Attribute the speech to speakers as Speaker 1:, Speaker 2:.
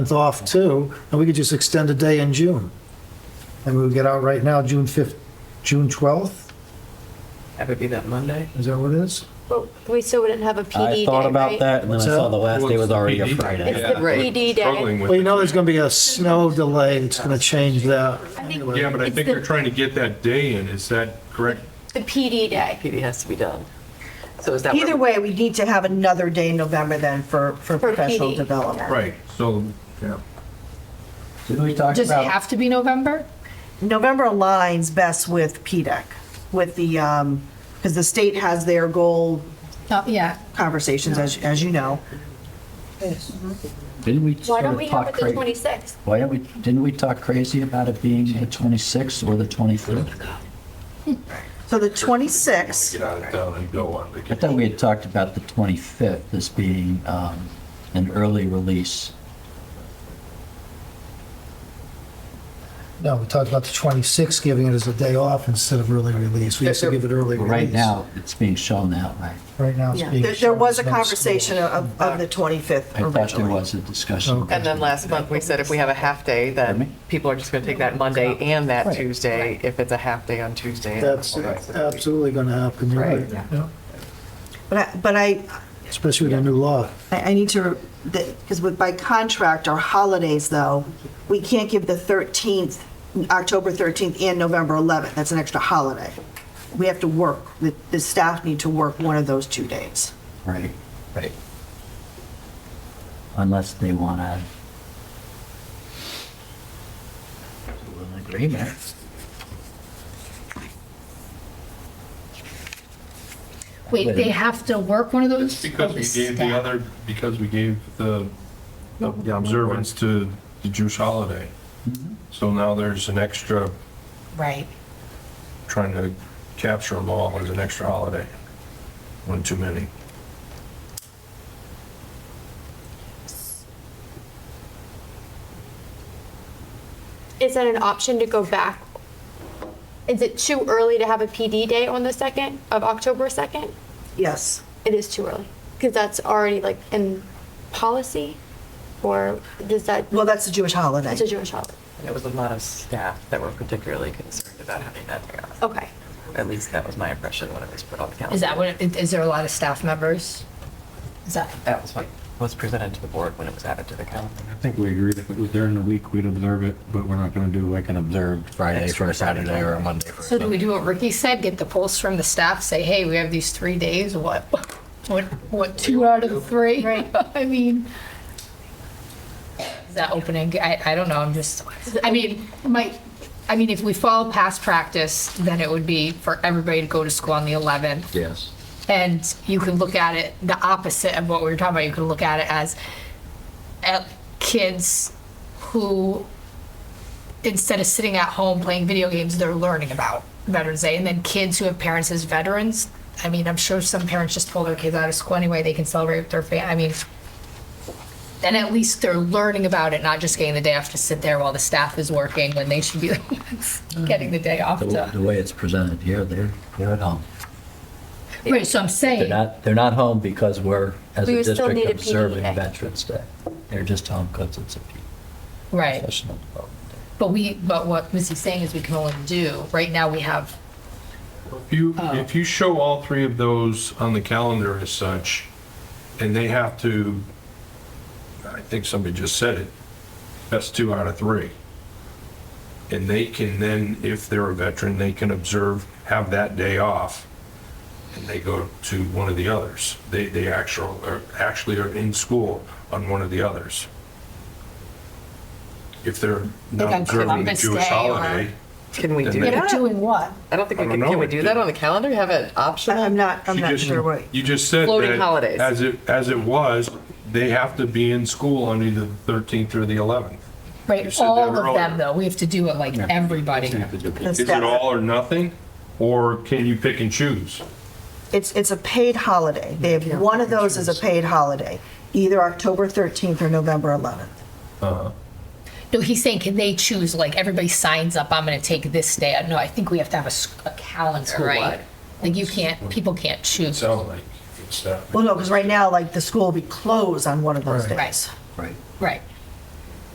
Speaker 1: month off too, and we could just extend a day in June. And we would get out right now, June 5th, June 12th,
Speaker 2: That would be that Monday.
Speaker 1: is that what it is?
Speaker 3: But we still wouldn't have a PD
Speaker 4: I
Speaker 3: day,
Speaker 4: thought about
Speaker 3: E right?
Speaker 4: that, and then I
Speaker 1: What's
Speaker 4: saw
Speaker 1: that?
Speaker 4: the last day was already a
Speaker 5: PD?
Speaker 4: Friday.
Speaker 3: It's the
Speaker 5: Yeah.
Speaker 3: PD day.
Speaker 5: Struggling with
Speaker 1: Well, you know,
Speaker 5: it.
Speaker 1: there's going to be a snow delay, it's going to change that.
Speaker 3: I think
Speaker 5: Yeah, but I
Speaker 3: it's
Speaker 5: think
Speaker 3: the-
Speaker 5: they're trying to get that day in, is that correct?
Speaker 3: The PD day.
Speaker 2: PD has to be done. So is that?
Speaker 6: Either way, we need to have another day in November then for, for
Speaker 3: For
Speaker 6: professional
Speaker 3: PD.
Speaker 6: development.
Speaker 5: Right, so, yeah.
Speaker 4: Didn't we talk
Speaker 7: Does it
Speaker 4: about,
Speaker 7: have to be November?
Speaker 6: November aligns best with PDEC, with the, um, because the state has their goal
Speaker 7: Not yet.
Speaker 6: conversations, as, as you know.
Speaker 4: didn't we
Speaker 3: Why
Speaker 4: sort
Speaker 3: don't
Speaker 4: of
Speaker 3: we have
Speaker 4: talk
Speaker 3: it the
Speaker 4: crazy?
Speaker 3: 26th?
Speaker 4: Why don't we, didn't we talk crazy about it being the 26th or the 25th?
Speaker 6: So the 26th,
Speaker 5: Get out of town and go on
Speaker 4: I
Speaker 5: vacation.
Speaker 4: thought we had talked about the 25th as being um, an early release.
Speaker 1: No, we talked about the 26th, giving it as a day off instead of early release. We used to give it early
Speaker 4: But
Speaker 1: release.
Speaker 4: Right now, it's being shown that way.
Speaker 1: Right now, it's
Speaker 3: Yeah.
Speaker 1: being.
Speaker 6: there, there was a
Speaker 1: shown as no
Speaker 6: conversation
Speaker 1: school.
Speaker 6: of, of the 25th
Speaker 4: I thought there
Speaker 6: originally.
Speaker 4: was a discussion.
Speaker 1: Okay.
Speaker 2: And then last month, we said if we have a half day,
Speaker 4: Pardon
Speaker 2: then
Speaker 4: me?
Speaker 2: people are just going to take that Monday and that
Speaker 4: Right.
Speaker 2: Tuesday, if it's a half day on Tuesday. and
Speaker 1: That's Uh,
Speaker 2: all that.
Speaker 1: absolutely going to happen, you're
Speaker 2: Right,
Speaker 1: right.
Speaker 2: yeah.
Speaker 1: Yeah.
Speaker 6: But I, but I,
Speaker 1: Especially with the new law.
Speaker 6: I I need to, because with, by contract, our holidays though, we can't give the 13th, October 13th and November 11th. That's an extra holiday. We have to work, the, the staff need to work one of those two days.
Speaker 4: Right. Right. Unless they want to. An agreement.
Speaker 7: Wait, they have to work one of those?
Speaker 5: Just because
Speaker 7: Oh,
Speaker 5: we
Speaker 7: the
Speaker 5: gave the
Speaker 7: staff.
Speaker 5: other, because we gave the the observance to the Jewish holiday.
Speaker 3: Mm-hmm.
Speaker 5: So now there's an extra,
Speaker 7: Right.
Speaker 5: trying to capture them all, there's an extra holiday. One too many.
Speaker 3: Is that an option to go back? Is it too early to have a PD day on the 2nd of October 2nd?
Speaker 6: Yes.
Speaker 3: It is too early because that's already like in policy or does that,
Speaker 6: Well, that's a Jewish holiday.
Speaker 3: that's a Jewish holiday.
Speaker 2: And It was a lot of staff that were particularly concerned about having that day off.
Speaker 3: Okay.
Speaker 2: At least that was my impression when it was put on the calendar.
Speaker 7: Is that what, it- is there a lot of staff members? Is that,
Speaker 2: That was what was presented to the board when it was added to the calendar.
Speaker 8: I think we agreed if it was during the week, we'd observe it, but we're not going to do like an observed Friday for a Saturday or a Monday for a
Speaker 7: so do we do what Ricky said, get the pulse from the staff, say, hey, we have these three days, what, what, what, two out of the three? Right. I mean, is that opening, I, I don't know, I'm just, I mean, my, I mean, if we follow past practice, then it would be for everybody to go to school on the 11th.
Speaker 4: Yes.
Speaker 7: And you can look at it the opposite of what we were talking about. You can look at it as at kids who, instead of sitting at home playing video games, they're learning about Veterans Day. And then kids who have parents as veterans. I mean, I'm sure some parents just pull their kids out of school anyway. They can celebrate with their family. I mean, then at least they're learning about it, not just getting the day off to sit there while the staff is working when they should be getting the day off
Speaker 4: The the
Speaker 7: to.
Speaker 4: way it's presented here, they're, they're at home.
Speaker 7: Right, so I'm
Speaker 4: They're
Speaker 7: saying,
Speaker 4: not, they're not home because we're, as
Speaker 3: We
Speaker 4: a
Speaker 3: would still
Speaker 4: district,
Speaker 3: need a PD
Speaker 4: observing
Speaker 3: day.
Speaker 4: Veterans Day. They're just home because it's a
Speaker 7: right.
Speaker 4: professional development day.
Speaker 7: But we, but what Missy's saying is we can only do, right now we have,
Speaker 5: If you,
Speaker 7: Oh.
Speaker 5: if you show all three of those on the calendar as such, and they have to, I think somebody just said it, best two out of three. And they can then, if they're a veteran, they can observe, have that day off, and they go to one of the others. They, they actual, are, actually are in school on one of the others. If they're
Speaker 7: Like on
Speaker 5: not observing the
Speaker 7: Columbus
Speaker 5: Jewish
Speaker 7: Day or-
Speaker 5: holiday,
Speaker 2: Can we
Speaker 5: And
Speaker 2: do
Speaker 5: then-
Speaker 7: they're
Speaker 2: that?
Speaker 7: doing what?
Speaker 2: I don't think
Speaker 5: I
Speaker 2: we
Speaker 5: don't
Speaker 2: can,
Speaker 5: know.
Speaker 2: can we do that on the calendar? Have an
Speaker 6: But I'm
Speaker 2: option?
Speaker 6: not, I'm
Speaker 5: You
Speaker 6: not
Speaker 5: just-
Speaker 6: sure what.
Speaker 5: You just said
Speaker 2: Floating
Speaker 5: that
Speaker 2: holidays.
Speaker 5: As it, as it was, they have to be in school on either the 13th or the 11th. You
Speaker 7: Right,
Speaker 5: said
Speaker 7: all
Speaker 5: that
Speaker 7: of them
Speaker 5: earlier.
Speaker 7: though, we have to do it like everybody.
Speaker 6: That's
Speaker 5: Is it
Speaker 6: that-
Speaker 5: all or nothing? Or can you pick and choose?
Speaker 6: It's, it's a paid holiday. They have, one of those is a paid holiday, either October 13th or November 11th.
Speaker 7: No, he's saying, can they choose, like, everybody signs up, I'm gonna take this day, no, I think we have to have a, s- a calendar, right? Like, you can't, people can't choose,
Speaker 5: Sound like it's that.
Speaker 6: Well, no, because right now, like, the school will be closed on one of those
Speaker 7: right,
Speaker 6: days.
Speaker 4: Right.
Speaker 7: right.